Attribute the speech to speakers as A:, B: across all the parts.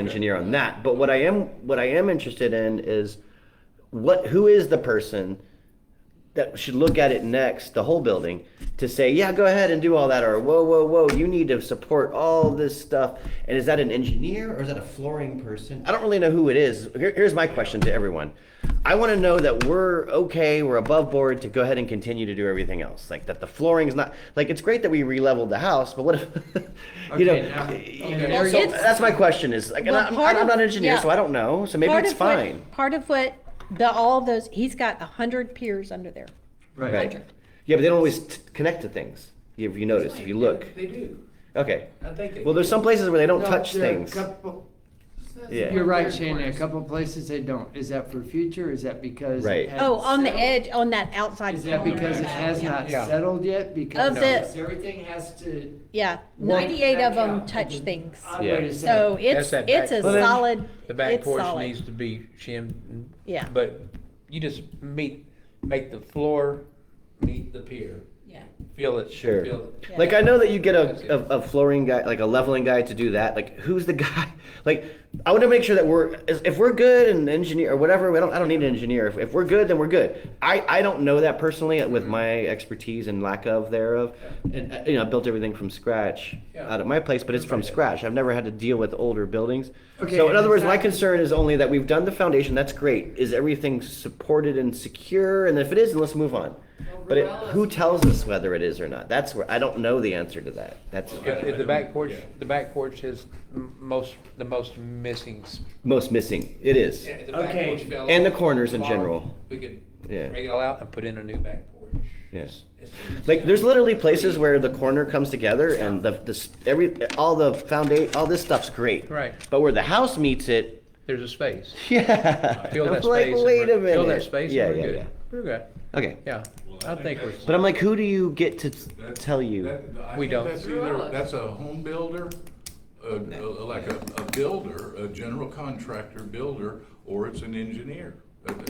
A: engineer on that. But what I am what I am interested in is what who is the person that should look at it next, the whole building, to say, yeah, go ahead and do all that, or whoa, whoa, whoa, you need to support all this stuff. And is that an engineer or is that a flooring person? I don't really know who it is. Here, here's my question to everyone. I want to know that we're okay, we're above board to go ahead and continue to do everything else. Like that the flooring's not like it's great that we re-leveled the house, but what if you know?
B: Okay, now- okay.
A: so
C: It's-
A: that's my question is like, and
C: Well,
A: I'm,
C: part
A: I'm
C: of-
A: not an engineer,
C: yeah.
A: so I don't know. So maybe
C: Part
A: it's
C: of what-
A: fine.
C: Part of what, the, all of those, he's got a hundred piers under there.
A: Right. Yeah, but they don't always t- connect to things. If you notice, if you look.
B: They do.
A: Okay.
B: I think they
A: Well, there's some places where they don't
D: No,
A: touch
D: there are a
A: things.
D: couple-
A: Yeah.
D: You're right, Shannon, a couple places they don't. Is that for future? Is that because? it
A: Right.
D: hasn't
C: Oh, on the
D: settled?
C: edge, on that outside.
D: Is that
C: corner.
D: because it has not
E: Yeah.
D: settled yet? Because
C: Of the-
D: everything has to.
C: Yeah,
D: work
C: ninety-eight
D: back
C: of them
D: out.
C: touch things.
D: Ah, wait a
A: Yeah.
C: So
D: second.
C: it's,
E: that
C: it's a
E: back- Well, then,
C: solid,
E: The back
C: it's
E: porch needs
C: solid.
E: to be shimmed.
C: Yeah.
E: But you just meet, make the floor meet the pier.
F: Yeah.
E: Feel it,
A: Sure.
E: feel it.
C: Yeah.
A: Like I know that you get a, a, a flooring guy, like a leveling guy to do that. Like who's the guy? Like I want to make sure that we're is- if we're good and engineer or whatever. I don't I don't need an engineer. If, if we're good, then we're good. I, I don't know that personally with my expertise and lack of thereof. And uh, you know I built everything from scratch
E: Yeah.
A: out of my place, but it's from scratch. I've never had to deal with older buildings.
D: Okay,
A: so in other words, my
D: exactly.
A: concern is only that we've done the foundation. That's great. Is everything supported and secure? And if it is, then let's move on. But it, who tells us whether it is or not? That's where I don't know the answer to that. That's
E: Yeah, if The back porch, the back porch is m- most, the most missing. s-
A: most missing. It is.
E: Yeah, if the back
D: Okay.
E: porch fell
A: And the
E: off,
A: corners in
E: tomorrow,
A: general.
E: We could
A: Yeah.
E: break it all out and put in a new back porch.
A: Yes.
E: It's-
A: Like there's literally places where the corner comes together and the this every all the foundation all this stuff's great.
E: Right.
A: But where the house meets it,
E: There's a space.
A: yeah.
E: Feel
A: I'm
E: that
A: like,
E: space. and
A: wait
E: we're-
A: a minute.
E: Feel that space
A: Yeah,
E: and we're
A: yeah,
E: good.
A: yeah.
E: We're good.
A: Okay.
E: Yeah. I think we're.
A: But I'm like, who do you get to t- tell you?
E: We don't.
G: That's either, that's a home builder, a- a- like a, a builder, a general contractor builder, or it's an engineer.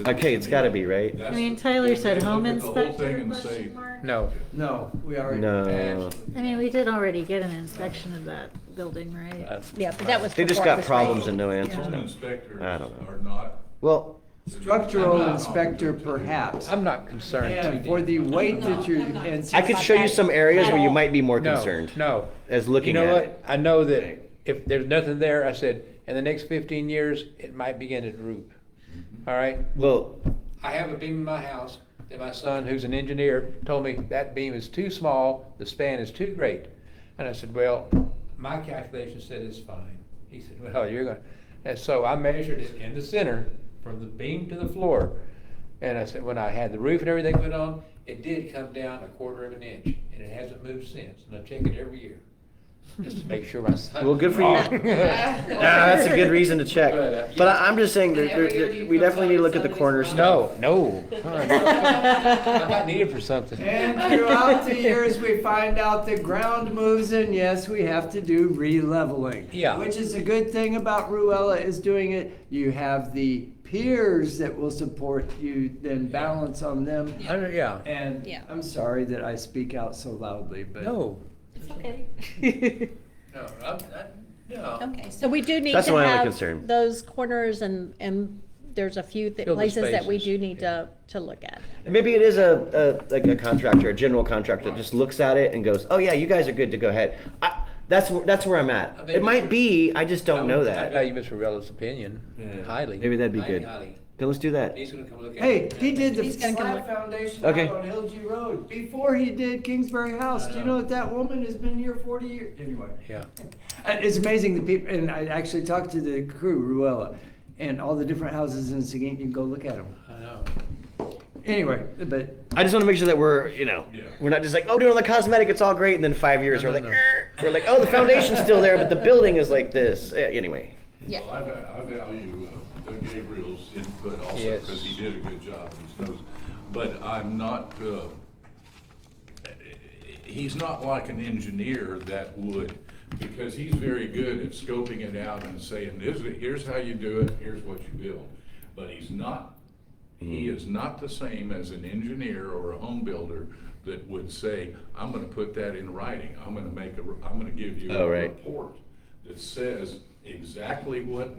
A: Okay, it's gotta be, right?
G: That's-
F: I mean, Tyler said
G: they
F: home
G: look at the whole
F: inspector,
G: thing and say,
F: question mark?
E: No,
D: No, we already.
A: No.
F: I mean, we did already get an inspection of that building, right?
E: that's-
C: Yeah, but that was.
A: They just
C: before it
A: got
C: was
A: problems
C: raised.
A: and no answers
G: Home
A: now.
G: inspectors
A: I don't know.
G: are not.
A: Well,
D: Structural inspector perhaps.
E: I'm not concerned too
D: And
E: deep.
D: for the weight that you're, and
A: I
D: since
A: could show you some areas where you might be more
E: No,
A: concerned.
E: No.
A: As looking
E: You know
A: at
E: what? I know that if there's nothing there, I said, in the next fifteen years, it might begin to droop.
A: Mm-hmm.
E: All right?
A: Well,
E: I have a beam in my house that my son, who's an engineer, told me that beam is too small, the span is too great. And I said, well, my calculation said it's fine. He said, well, you're gonna, and so I measured it in the center from the beam to the floor. And I said, when I had the roof and everything put on, it did come down a quarter of an inch and it hasn't moved since. And I check it every year, just to make sure my son.
A: Well, good for you.
E: you.
A: Ah, that's a good reason to check.
E: But, uh,
A: But I, I'm just saying that
B: And
A: there,
B: every year
A: there-
B: you
A: we
B: come
A: definitely
B: by
A: need
B: and
A: to look at
B: somebody's
A: the corner
B: gone.
A: stuff.
E: No, no. I might need it for something.
D: And throughout the years, we find out the ground moves and yes, we have to do re-leveling.
E: Yeah.
D: Which is a good thing about Ruella is doing it. You have the peers that will support you, then balance on them.
E: I don't- Yeah.
D: And
C: Yeah.
D: I'm sorry that I speak out so loudly, but.
E: No.
C: Okay.
E: No, I'm, I'm, no.
C: Okay, so we do need
A: That's
C: to
A: my only
C: have
A: concern.
C: those corners and, and there's a few th-
E: Fill the
C: places that we do
E: spaces,
C: need
E: yeah.
C: to, to look at.
A: Maybe it is a, a, like a contractor, a general contractor that just looks at it and goes, oh yeah, you guys are good to go ahead. I, that's, wh- that's where I'm at. It might be, I just don't know
E: I
A: that.
E: value Mr. Rella's opinion highly.
A: Maybe that'd be
E: Highly,
A: good.
E: highly.
A: Then let's do that.
E: He's gonna come look at
D: Hey,
E: it.
D: he did the
C: He's gonna come
D: slab
C: look.
D: foundation
A: Okay.
D: out on Hillview Road before he did Kingsbury House. Do you
E: I
D: know
E: know.
D: that that woman has been here forty years? Anyway.
E: Yeah.
D: And It's amazing the people, and I actually talked to the crew, Ruella, and all the different houses in Seguin. You can go look at them.
E: I know.
D: Anyway, but
A: I just wanna make sure that we're, you know,
G: Yeah.
A: we're not just like, oh, doing all the cosmetic, it's all great, and then five years, we're
E: No, no,
A: like,
E: no.
A: "Er." we're like, oh, the foundation's still there, but the building is like this. Eh, Anyway.
C: Yeah.
G: Well, I va- I value uh, Gabriel's input also,
E: Yes.
G: because he did a good job and stuff, but I'm not, uh, he's not like an engineer that would, because he's very good at scoping it out and saying, "This is- here's how you do it, here's what you build. But he's not, he
A: Hmm.
G: is not the same as an engineer or a home builder that would say, I'm gonna put that in writing, I'm gonna make a, I'm gonna give you
A: Oh,
G: a
A: right.
G: report that says exactly what